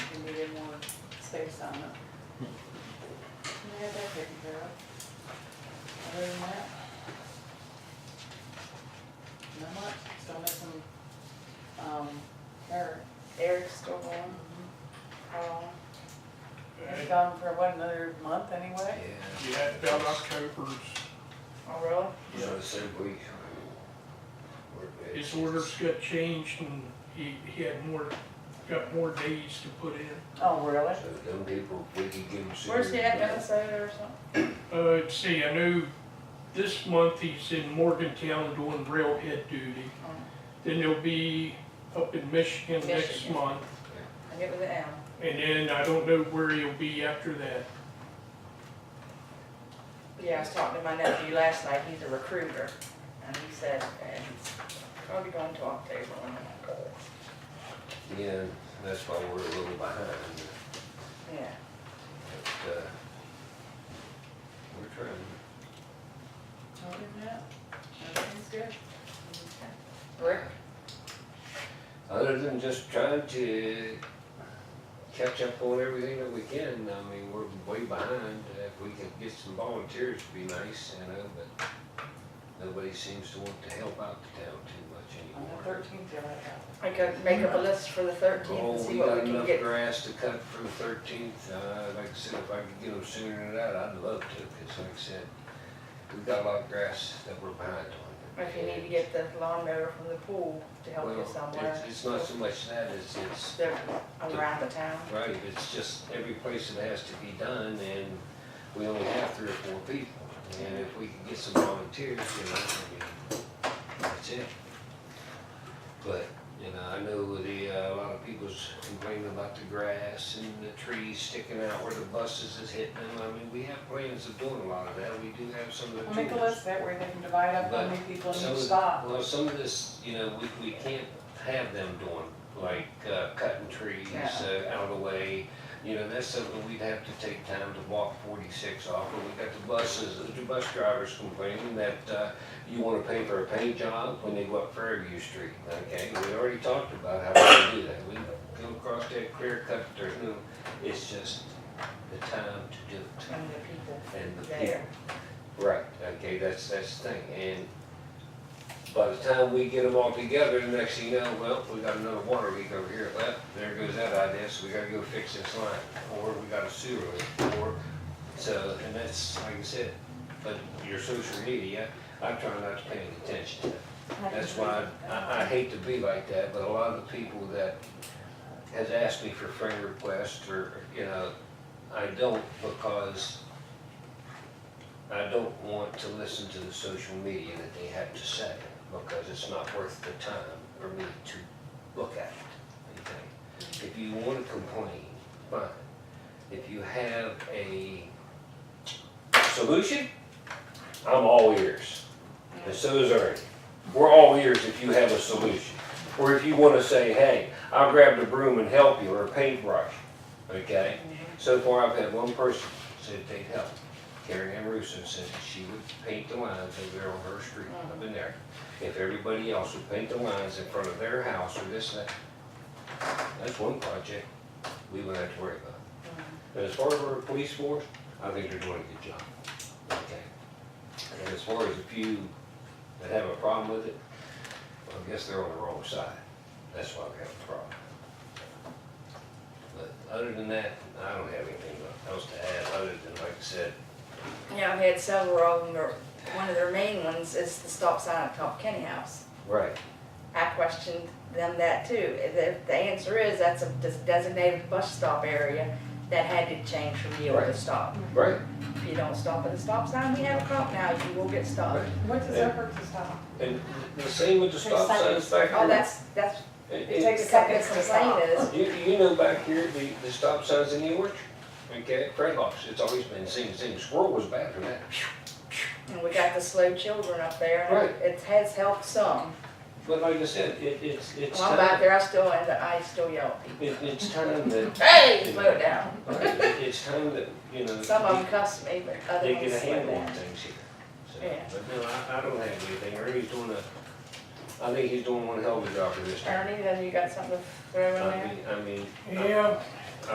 place on them. We had that taken care of. Other than that. Not much, still missing, um, Eric. Eric's still going, Carl, He's Yeah, Oh, gone for what, another month anyway? Yeah, about October's, oh really? Yeah. So said we. we're good. his orders got changed and he, he had more, got more days to put in. Oh, really? So them people, we can give them. some- Where's he at, Minnesota or something? Uh, let's see, I know this month he's in Morgantown doing railhead duty. Oh. Then he'll be up in Michigan next Michigan. month. I get with the M. And then I don't know where he'll be after that. Yeah, I was talking to my nephew last night, he's a recruiter, and he said, and he's probably going to October when I'm like, "Oh, Yeah, that's why we're a little behind, Yeah, but, uh, we're trying. Other than that, everything's good. Rick, Other than just trying to catch up on everything that we can, I mean, we're way behind. Uh, If we could get some volunteers, it'd be nice, I know, but nobody seems to want to help out the town too On the much anymore. thirteenth, you're like, "Oh, I could make up a list for the thirteenth and Oh, see we what we got can enough get. grass to cut for the thirteenth, uh, like I said, if I could get them sooner than that, I'd love to, because like I said, we've got a lot of grass that we're behind on. If you need to get the lawnmower from the pool to help you Well, somewhere. it's- It's not so much that, it's, it's They're around the town. Right, it's just every place that has to be done, and we only have three or four people, and if we can get some volunteers, you know, I mean, that's it. But, you know, I know the, uh, a lot of people's complaining about the grass and the trees sticking out where the buses is hitting them, I mean, we have plans of doing a lot of that, we do have some of the I'll tools. make a list that way they can divide up how many people Some in of each the- spot. Well, some of this, you know, we, we can't have them doing, like, uh, cutting trees, uh, out of the way. You know, that's something we'd have to take time to walk forty-six off, but we got the buses, the bus drivers complaining that, uh, you wanna pay for a paint job when they go up Fairview Street, okay? We already talked about how we can do that, we come across that clear cut, there's no, it's just the time to do it And the people and the people. there. Right, okay, that's, that's the thing, and by the time we get them all together, the next thing you know, well, we got another water leak over here, well, there goes that idea, so we gotta go fix this line, or we got a sewer leak, or, so, and that's, like I said, but your social media, I try not to pay any attention to that. That's why I, I hate to be like that, but a lot of the people that has asked me for friend requests or, you know, I don't because I don't want to listen to the social media that they have to say because it's not worth the time for me to look at it, okay? If you wanna complain, fine. If you have a solution, I'm all ears. And so is Ernie. We're all ears if you have a solution. Or if you want to say, hey, I'll grab the broom and help you, or a paintbrush, okay? So far, I've had one person said they'd help. Karen Amoruso said she would paint the lines over there on her street, I've been there. If everybody else would paint the lines in front of their house or this and that, that's one project we wouldn't have to worry about. But as far as our police force, I think they're doing a good job, okay? And as far as the few that have a problem with it, well, I guess they're on the wrong side. That's why we have a problem. But other than that, I don't have anything else to add, other than, like I said, Yeah, I've had several of them, or one of their main ones is the stop sign at Top Kenny House. right, I questioned them that too. The, the answer is that's a des- designated bus stop area that had to change from yield to Right. stop. right, If you don't stop at the stop sign, we have a cop now, you will get stopped. What's the Yeah. effort to stop? and the same with the stop signs back here. Oh, that's, that's, It- it it- takes a second to complain is, You, you know back here, the, the stop signs in the orchard, okay, Fred Hawkes, it's always been seen, seen, squirrel was bad for that. and we got the slow children up there, Right. and it has helped some. But like I said, it, it's, it's When I'm back time, there, I still, end up- I still yell at people. it, it's time that, Hey, slow down. all right, it- it's time that, you know, Some of them they cuss me, but other get a ones slow handle on down. things here. So, Yeah. But no, I, I don't have anything, Ernie's doing a, I think he's doing one hell of a job for this town. Ernie, then you got something to throw in I there? mean, I mean, Yeah,